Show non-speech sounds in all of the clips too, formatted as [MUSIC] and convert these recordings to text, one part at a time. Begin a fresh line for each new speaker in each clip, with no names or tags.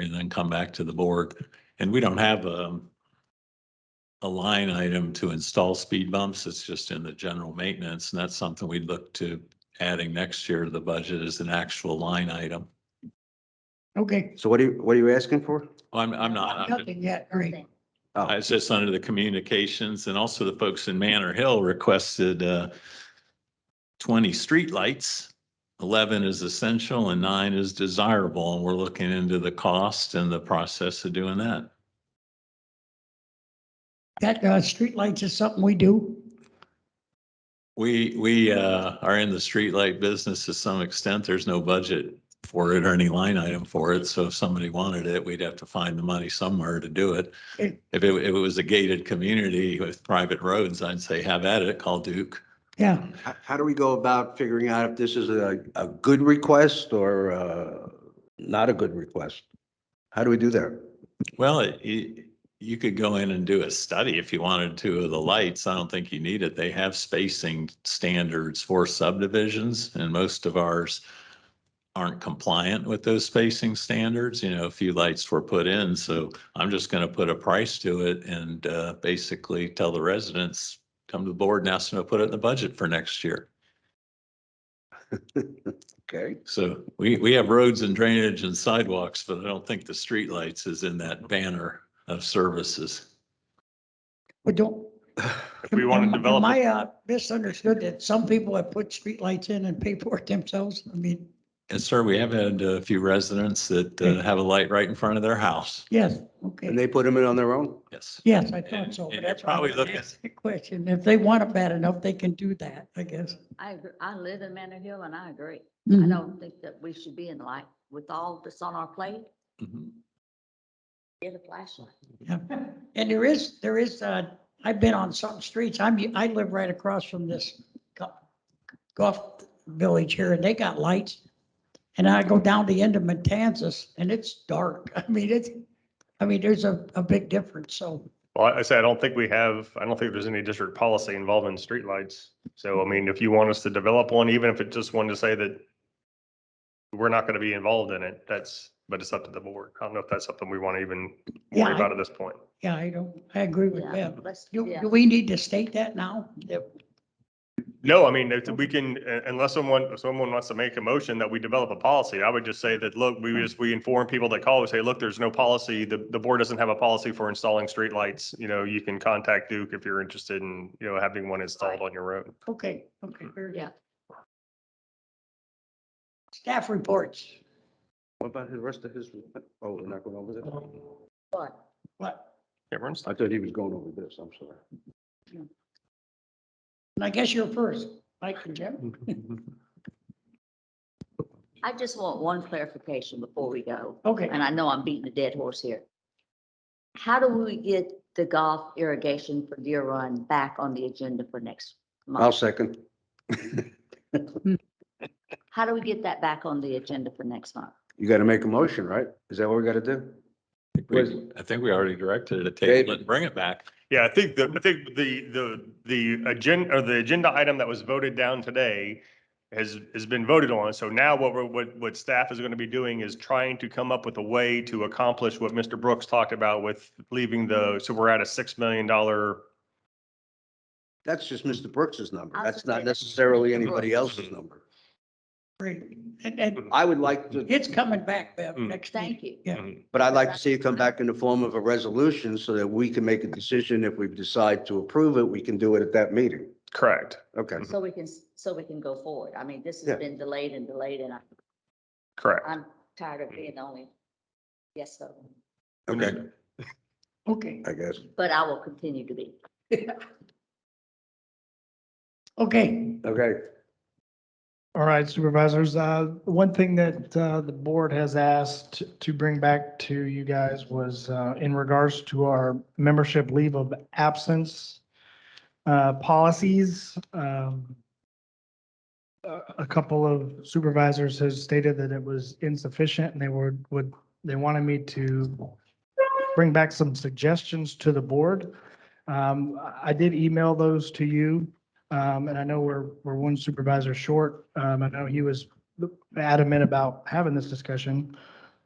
and then come back to the board. And we don't have a a line item to install speed bumps. It's just in the general maintenance, and that's something we'd look to adding next year to the budget as an actual line item.
Okay,
So what are you, what are you asking for? Oh,
I'm, I'm not, I'm-
nothing yet, right?
I was just under the communications and also the folks in Manor Hill requested uh, twenty streetlights. Eleven is essential and nine is desirable, and we're looking into the cost and the process of doing that.
That, uh, streetlights is something we do.
We, we uh, are in the streetlight business to some extent. There's no budget for it or any line item for it. So if somebody wanted it, we'd have to find the money somewhere to do it.
Okay.
If it, if it was a gated community with private roads, I'd say have at it, call Duke.
Yeah,
How, how do we go about figuring out if this is a, a good request or, uh, not a good request? How do we do that?
Well, it- you, you could go in and do a study if you wanted to of the lights. I don't think you need it. They have spacing standards for subdivisions and most of ours aren't compliant with those spacing standards. You know, a few lights were put in, so I'm just going to put a price to it and uh, basically tell the residents, come to the board and ask them to put it in the budget for next year.
Okay,
So we, we have roads and drainage and sidewalks, but I don't think the streetlights is in that banner of services.
but don't.
If we wanna
Am I-
develop
Am
it-
I, uh, misunderstood that some people have put streetlights in and pay for it themselves? I mean,
Yes, sir. We have had a few residents that
Okay.
uh, have a light right in front of their house.
yes,
and
okay.
they put them in on their own?
Yes.
Yes, I
And-
thought so.
and
but
you're
that's why I
probably looking-
asked the Question, if they want it bad enough, they can do that, I guess.
I agree. I live in Manor Hill and I agree. I
Mhm.
don't think that we should be in light with all that's on our plate,
Mhm.
get a flashlight.
Yeah, and there is, there is, uh, I've been on some streets, I'm, I live right across from this go- golf village here, and they got lights. And I go down the end of Matanzas, and it's dark, [LAUGHS] I mean, it's, I mean, there's a, a big difference, so,
Well, I I say, I don't think we have, I don't think there's any district policy involving streetlights. So I mean, if you want us to develop one, even if it just wanted to say that we're not going to be involved in it, that's, but it's up to the board. I don't know if that's something we want to even
Yeah,
worry
I-
about at this point.
yeah, I don't, I agree with
Yeah,
Deb.
let's,
Do,
yeah.
do we need to state that now? That-
No, I mean, if we can, uh, unless someone, if someone wants to make a motion that we develop a policy, I would just say that, look, we just, we inform people that call, we say, look, there's no policy. The, the board doesn't have a policy for installing streetlights. You know, you can contact Duke if you're interested in, you know, having one installed on your own.
Okay, okay, very good.
Yeah.
Staff reports,
What about the rest of his, oh, we're not going over this?
But
what?
Everyone's,
I thought he was going over this, I'm sorry.
And I guess you're first, Mike and Jim.
I just want one clarification before we go.
Okay.
And I know I'm beating a dead horse here. How do we get the golf irrigation for Deer Run back on the agenda for next
I'll
month?
second.
How do we get that back on the agenda for next month?
You got to make a motion, right? Is that what we got to do?
I think we- I think we already directed it to table it and bring it back.
yeah, I think the, I think the, the, the agenda, or the agenda item that was voted down today has, has been voted on. So now what we're, what, what staff is going to be doing is trying to come up with a way to accomplish what Mr. Brooks talked about with leaving the, so we're at a $6 million
That's just Mr. Brooks's number.
I'll
That's
second
not
it.
necessarily
Mr.
anybody
Brooks.
else's number.
Great. And, and
I would like to
it's coming back, Bev,
Mm.
next meeting.
Thank you.
Yeah,
But I'd like to see it come back in the form of a resolution so that we can make a decision. If we decide to approve it, we can do it at that meeting.
Correct.
Okay.
So we can, s- so we can go forward. I mean, this
Yeah.
has been delayed and delayed and I,
Correct.
I'm tired of being the only yes vote.
Okay,
okay,
I guess.
But I will continue to be.
okay.
Okay.
All right, supervisors, uh, one thing that, uh, the board has asked to bring back to you guys was, uh, in regards to our membership leave of absence, uh, policies. Um, a, a couple of supervisors has stated that it was insufficient and they were, would, they wanted me to bring back some suggestions to the board. Um, I- I did email those to you. Um, and I know we're, we're one supervisor short. Um, I know he was adamant about having this discussion.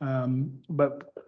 Um, but